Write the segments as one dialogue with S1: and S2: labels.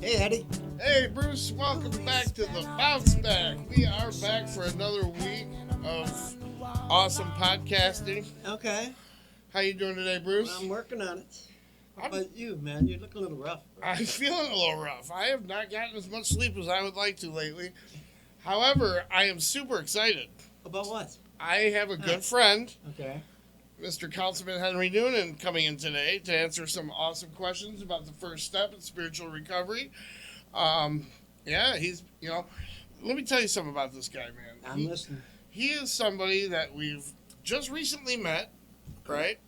S1: Daddy.
S2: Hey, Bruce, welcome back to the Bounce Back. We are back for another week of awesome podcasting.
S1: Okay.
S2: How you doing today, Bruce?
S1: I'm working on it. How
S2: I'm-
S1: about you, man? You look a little rough.
S2: I'm feeling a little rough. I have not gotten as much sleep as I would like to lately. However, I am super excited.
S1: About what?
S2: I have a good
S1: Nice.
S2: friend,
S1: Okay.
S2: Mr. Councilman Henry Noonan, coming in today to answer some awesome questions about the first step in spiritual recovery. Um, yeah, he's, you know, let me tell you something about this guy, man.
S1: I'm
S2: He-
S1: listening.
S2: he is somebody that we've just recently met, right?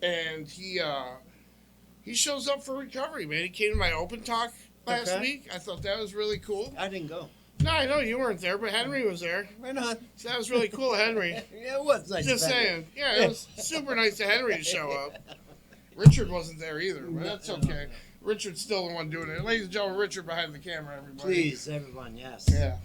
S2: And he uh, he shows up for recovery, man. He came to my open talk last
S1: Okay.
S2: week. I thought that was really cool.
S1: I didn't go.
S2: No, I know you weren't there, but Henry was there.
S1: Right on.
S2: So that was really cool, Henry.
S1: yeah, it was nice.
S2: Just
S1: of Henry.
S2: saying, yeah, it was super nice to Henry to show up. Richard wasn't there either, but that's
S1: No,
S2: okay. Richard's still the one doing it. Ladies and gentlemen, Richard behind the camera, everybody.
S1: Please, everyone, yes.
S2: Yeah.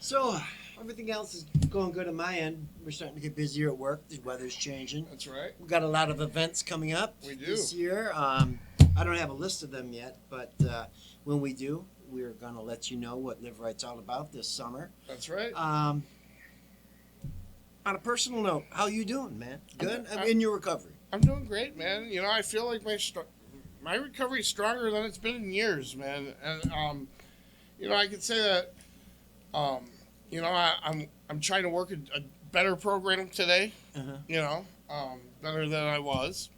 S1: So, everything else is going good on my end. We're starting to get busier at work. The weather's changing.
S2: That's right.
S1: We've got a lot of events coming up
S2: We do.
S1: this year. Um, I don't have a list of them yet, but uh, when we do, we're going to let you know what Live Right's all about this summer.
S2: That's right.
S1: Um, on a personal note, how you doing, man? Good. I'm
S2: I'm-
S1: in your recovery.
S2: I'm doing great, man. You know, I feel like my str- my recovery is stronger than it's been in years, man. And um, you know, I could say that. Um, you know, I, I'm I'm trying to work a, a better program today.
S1: Uh-huh.
S2: You know, um, better than I was.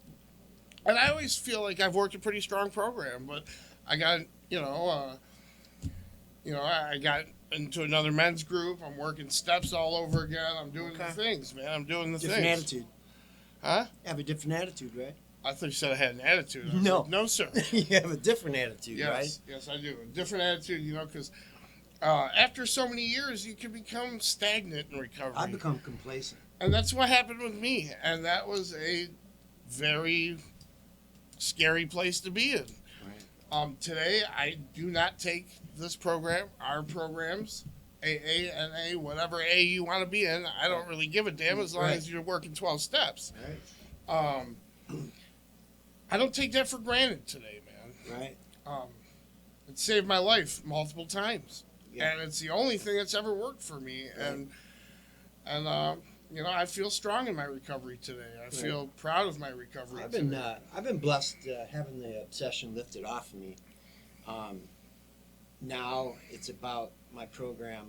S2: And I always feel like I've worked a pretty strong program, but I got you know, uh, you know, I, I got into another men's group. I'm working steps all over again. I'm doing
S1: Okay.
S2: the things, man. I'm doing the
S1: Different
S2: things.
S1: attitude.
S2: Huh?
S1: You have a different attitude, right?
S2: I thought you said I had an attitude. I was
S1: No.
S2: like, no, sir.
S1: you have a different attitude,
S2: yes,
S1: right?
S2: yes, I do. A different attitude, you know, because uh, after so many years, you can become stagnant in recovery,
S1: I become complacent.
S2: and that's what happened with me. And that was a very scary place to be in.
S1: Right.
S2: Um, today, I do not take this program, our programs, AA, NA, whatever A you want to be in. I don't really give a damn as long
S1: Right.
S2: as you're working twelve steps.
S1: Right.
S2: Um, I don't take that for granted today, man.
S1: Right.
S2: Um, it saved my life multiple times,
S1: Yeah.
S2: and it's the only thing that's ever worked for me. And and uh, you know, I feel strong in my recovery today. I feel proud of my recovery.
S1: I've been
S2: today.
S1: uh, I've been blessed uh, having the obsession lifted off of me. Um, now it's about my program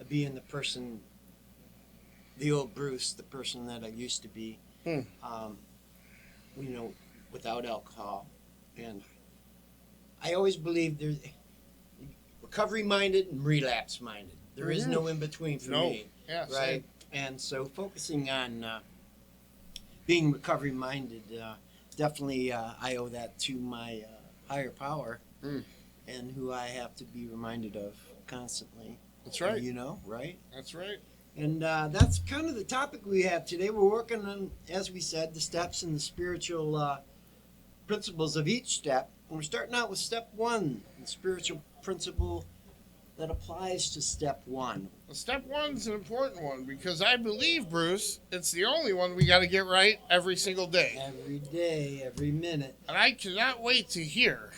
S1: uh, being the person, the old Bruce, the person that I used to be.
S2: Hmm.
S1: Um, you know, without alcohol, and I always believe there's recovery minded and relapse minded. There is no in between for
S2: Mm-hmm. No.
S1: me
S2: yeah, same.
S1: right? And so focusing on uh, being recovery minded, uh, definitely uh, I owe that to my uh, higher power
S2: Mm.
S1: and who I have to be reminded of constantly.
S2: That's right.
S1: You know, right?
S2: That's right.
S1: And uh, that's kind of the topic we have today. We're working on, as we said, the steps and the spiritual uh, principles of each step. And we're starting out with step one, the spiritual principle that applies to step one.
S2: Well, Step one's an important one because I believe, Bruce, it's the only one we got to get right every single day.
S1: Every day, every minute.
S2: And I cannot wait to hear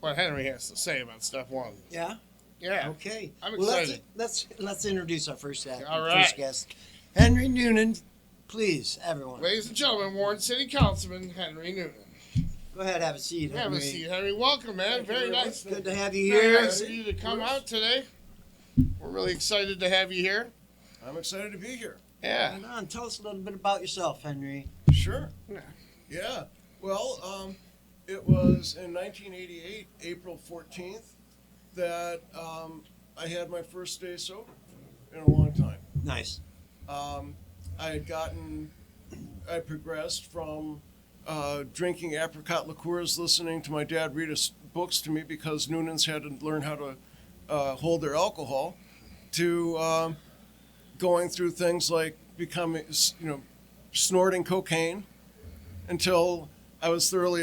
S2: what Henry has to say about step one.
S1: Yeah.
S2: Yeah.
S1: Okay.
S2: I'm
S1: well,
S2: excited.
S1: Let's, let's let's introduce our first act,
S2: All
S1: first
S2: right.
S1: guest, Henry Noonan. Please, everyone,
S2: Ladies and gentlemen, Warren City Councilman Henry Newton.
S1: go ahead, have a seat.
S2: Have a
S1: Henry.
S2: seat, Henry. Welcome, man.
S1: Thank you
S2: Very
S1: much.
S2: nice.
S1: Good to have you
S2: Very
S1: here.
S2: nice of you to come out today. We're really excited to have you here.
S3: I'm excited to be here.
S2: Yeah.
S1: Right on. Tell us a little bit about yourself, Henry.
S3: Sure.
S2: Yeah.
S3: Yeah. Well, um, it was in 1988, April 14th, that um, I had my first day sober in a long time.
S1: Nice.
S3: Um, I had gotten, I progressed from uh, drinking apricot liqueurs, listening to my dad read his books to me because Noonans had to learn how to uh, hold their alcohol, to um, going through things like becoming, you know, snorting cocaine until I was thoroughly